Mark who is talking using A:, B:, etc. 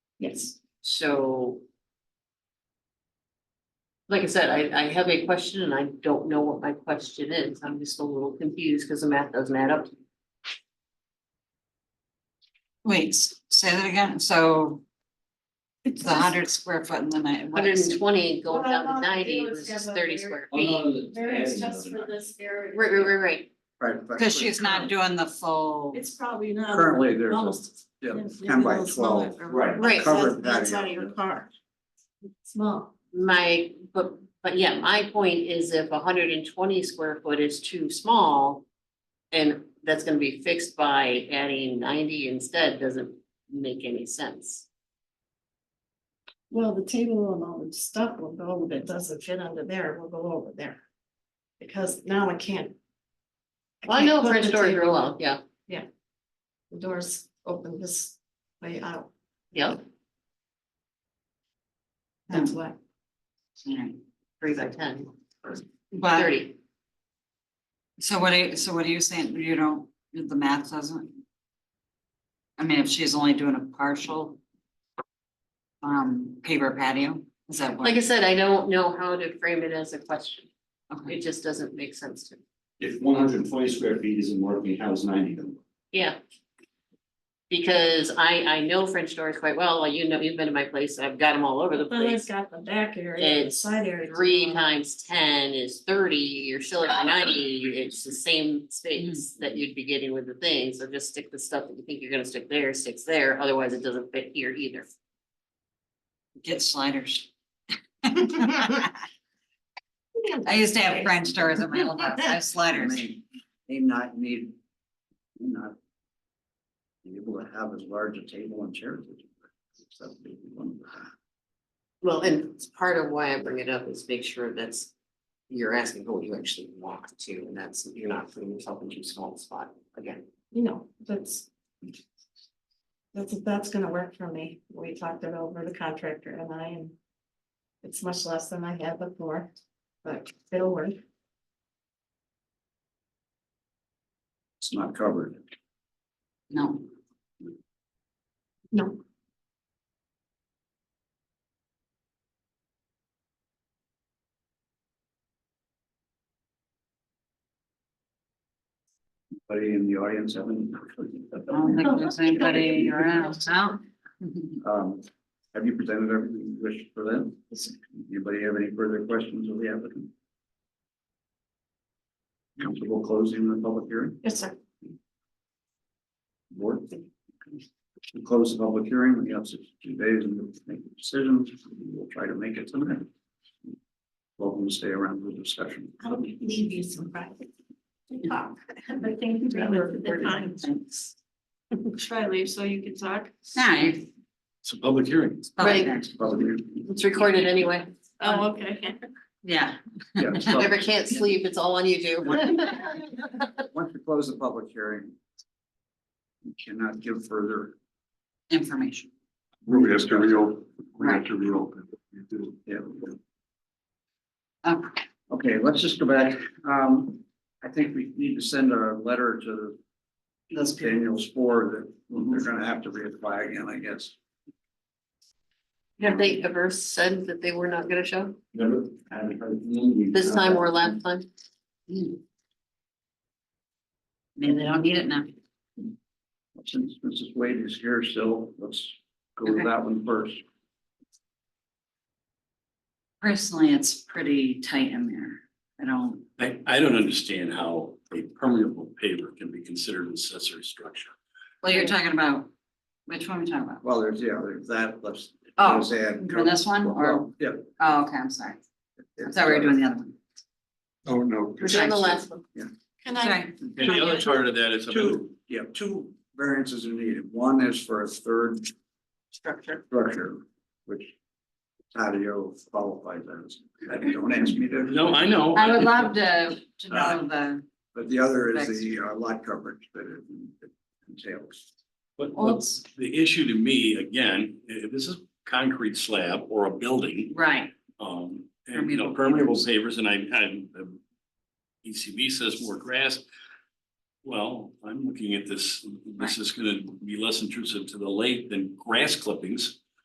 A: Yes. So. Like I said, I, I have a question and I don't know what my question is. I'm just a little confused because the math doesn't add up.
B: Wait, s- say that again, so
C: It's
B: the hundred square foot and then I.
A: Hundred and twenty going
C: What I
A: down to
C: wanna
A: ninety
C: do is
A: was
C: have a
A: thirty
C: very-
A: square feet.
C: Variance just for
D: Because
C: this area.
A: Right, right, right, right.
B: Cause she's not doing the full,
C: It's probably not.
D: Currently, there's a-
C: Almost.
D: yeah,
C: it's
D: 10 by
C: a little smaller
D: 12,
C: for-
D: right,
A: Right.
D: covered
C: That's that's
D: patio.
C: out of your car. Small.
A: My, but, but yeah, my point is if hundred and twenty square foot is too small. And that's gonna be fixed by adding ninety instead doesn't make any sense.
C: Well, the table and all the stuff will go that doesn't fit under there, will go over there. Because now I can't.
A: Well, I know
C: can't put
A: French
C: the
A: doors
C: table-
A: real well, yeah,
C: The doors open this way out,
A: yeah,
C: that's why.
B: Alright.
A: three by ten,
B: but,
A: thirty.
B: so what are, you- so what are you saying, you don't, the math doesn't? I mean, if she's only doing a partial. Um, paper patio, is that what?
A: Like I said, I don't know how to frame it as a question.
B: Okay.
A: It just doesn't make sense to me.
E: If one hundred and twenty square feet isn't working, how's ninety gonna work?
A: Yeah. Because I, I know French doors quite well. Well, you know, you've been to my place. I've got them all over the
C: But
A: place.
C: it's got the back area, the
A: It's
C: side area.
A: Three times ten is thirty, you're still at ninety. It's the same space that you'd be getting with the thing. So just stick the stuff that you think you're gonna stick there, sticks there. Otherwise, it doesn't fit here either.
B: Get sliders. I used to have French doors in my old house, I have
D: I
B: sliders.
D: mean, They not need, not be able to have as large a table and chairs. as you would, except maybe one of the-
A: Well, and it's part of why I bring it up is make sure that's, you're asking for what you actually want to, and that's, you're not putting yourself in too small a spot again.
C: you know, that's. That's, that's gonna work for me. We talked it over the contractor and I and. It's much less than I had before, but it'll work.
D: It's not covered.
B: No,
C: No,
D: Anybody in the audience have any?
C: Oh,
B: I don't think there's anybody around, no.
D: Um, have you presented everything you wish for them? Anybody have any further questions of the applicant? Comfortable closing the public hearing?
C: yes, sir.
D: Board? We Close the public hearing, we have sixty days and we'll make a decision, we'll try to make it tonight. Welcome to stay around for the discussion.
C: I'll leave you some private talk, but thank you
D: for the time.
C: Thanks. Should I leave so you can talk?
B: No, you-
D: It's a public hearing.
B: it's public
A: Right.
B: hearing.
D: Public hearing,
A: It's recorded anyway.
C: Oh, okay.
B: Yeah,
D: yeah, it's
A: Never
D: public.
A: can't sleep, it's all on YouTube.
D: Once you close the public hearing. You cannot give further.
B: information.
F: We have to reopen, we have to reopen. We do.
D: Yeah. Um,
B: Okay.
D: Okay, let's just go back. Um, I think we need to send a letter to
B: Those people.
D: Daniel Spore that they're gonna have to reapply again, I guess.
A: Have they ever said that they were not gonna show?
E: Never, I haven't heard from them.
A: This time or last time?
B: Hmm. Maybe they don't need it now.
D: Since Mrs. Wade is here still, let's go with
B: Okay.
D: that one first.
B: Personally, it's pretty tight in there. I don't,
G: I, I don't understand how a permeable paver can be considered an accessory structure.
B: well, you're talking about, which one are we talking about?
D: Well, there's, yeah, there's that, let's.
B: Oh,
D: let's add-
B: for this one or,
D: Well, Yeah.
B: oh, okay, I'm sorry. I thought we were doing the other one.
F: Oh, no.
A: We're doing the last one.
C: Can
B: Sorry.
G: And the other part of that is.
D: Two, yeah, two variances are needed. One is for a third
A: Structure.
D: structure, which patio qualifies as. Don't ask me to.
G: No, I know.
B: I would love to, to know the,
D: But the other is the uh, lot coverage that it entails.
G: But
B: Well,
G: but the issue to me, again, i- if this is concrete slab or a building,
B: right,
G: um, and, you know, permeable pavers, and I, I, the ECB says more grass. Well, I'm looking at this, this is gonna be less intrusive to the lake than grass clippings.